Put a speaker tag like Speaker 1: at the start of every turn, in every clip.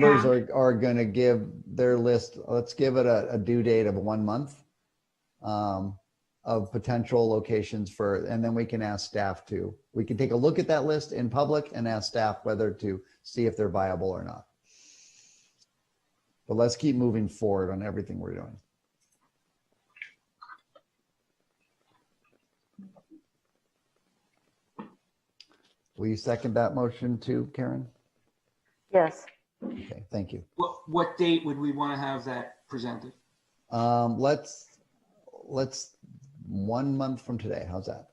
Speaker 1: members are, are gonna give their list, let's give it a, a due date of one month um, of potential locations for, and then we can ask staff to, we can take a look at that list in public and ask staff whether to see if they're viable or not. But let's keep moving forward on everything we're doing. Will you second that motion too, Karen?
Speaker 2: Yes,
Speaker 1: Okay, thank you.
Speaker 3: What, what date would we want to have that presented?
Speaker 1: Um, let's, let's, one month from today, how's that?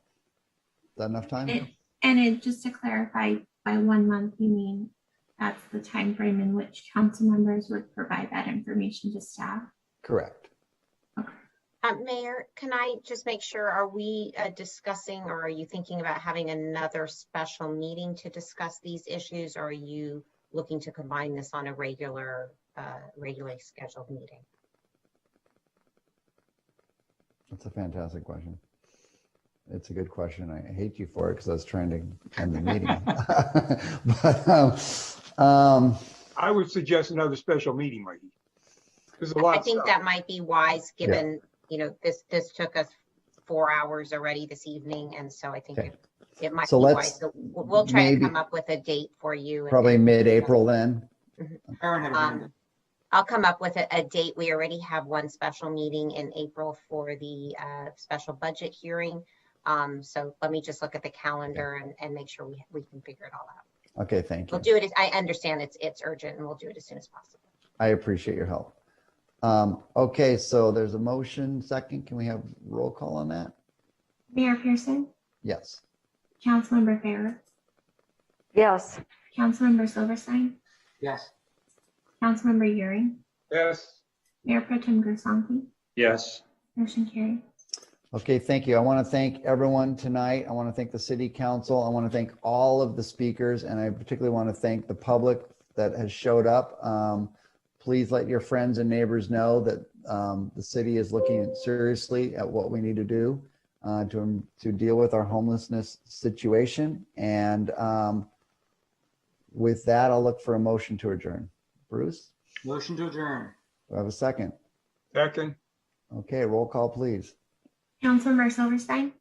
Speaker 1: Is that enough time?
Speaker 4: It- And it, just to clarify, by one month, you mean that's the time frame in which council members would provide that information to staff?
Speaker 1: Correct.
Speaker 5: Uh, Mayor, can I just make sure, are we uh, discussing or are you thinking about having another special meeting to discuss these issues? Or are you looking to combine this on a regular, uh, regularly scheduled meeting?
Speaker 1: That's a fantastic question. It's a good question. I hate you for it because I was trying to end the meeting. But, um, um,
Speaker 6: I would suggest another special meeting, Mikey. There's a lot
Speaker 5: I
Speaker 6: of
Speaker 5: think
Speaker 6: stuff.
Speaker 5: that might be wise, given, you know, this, this took us four hours already this evening. And so I think
Speaker 1: Okay.
Speaker 5: it- it might be
Speaker 1: So
Speaker 5: wise.
Speaker 1: let's
Speaker 5: So We'll we'll try to
Speaker 1: maybe-
Speaker 5: come up with a date for you. and
Speaker 1: probably
Speaker 5: then-
Speaker 1: mid-April then.
Speaker 3: Aaron had a hand up.
Speaker 5: Um, I'll come up with a, a date. We already have one special meeting in April for the uh, special budget hearing. Um, So let me just look at the calendar and, and make sure we, we can figure it all out.
Speaker 1: Okay, thank you.
Speaker 5: We'll do it, as- I understand it's, it's urgent and we'll do it as soon as possible.
Speaker 1: I appreciate your help. Um, okay, so there's a motion second. Can we have roll call on that?
Speaker 4: Mayor Pearson,
Speaker 1: Yes.
Speaker 4: Councilmember Farrar,
Speaker 2: yes,
Speaker 4: Councilmember Silverstein,
Speaker 3: Yes,
Speaker 4: Councilmember Euring,
Speaker 6: Yes,
Speaker 4: Mayor Pro Tem Grisanti,
Speaker 7: Yes,
Speaker 4: motion carried.
Speaker 1: Okay, thank you. I want to thank everyone tonight. I want to thank the city council. I want to thank all of the speakers and I particularly want to thank the public that has showed up. Um, please let your friends and neighbors know that um, the city is looking seriously at what we need to do uh, to, to deal with our homelessness situation. And um, with that, I'll look for a motion to adjourn. Bruce,
Speaker 3: motion to adjourn.
Speaker 1: do I have a second?
Speaker 6: second,
Speaker 1: Okay, roll call, please.
Speaker 4: Councilmember Silverstein,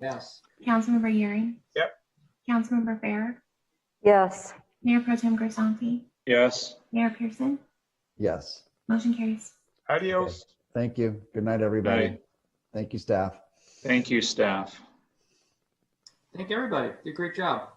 Speaker 3: Yes.
Speaker 4: Councilmember Euring.
Speaker 6: Yep.
Speaker 4: Councilmember Farrar,
Speaker 2: yes.
Speaker 4: Mayor Pro Tem Grisanti,
Speaker 7: yes.
Speaker 4: Mayor Pearson,
Speaker 1: Yes.
Speaker 4: motion carries.
Speaker 6: adios.
Speaker 1: Thank you. Good night, everybody.
Speaker 7: Night.
Speaker 1: Thank you, staff.
Speaker 7: Thank you, staff.
Speaker 3: Thank everybody. Did a great job.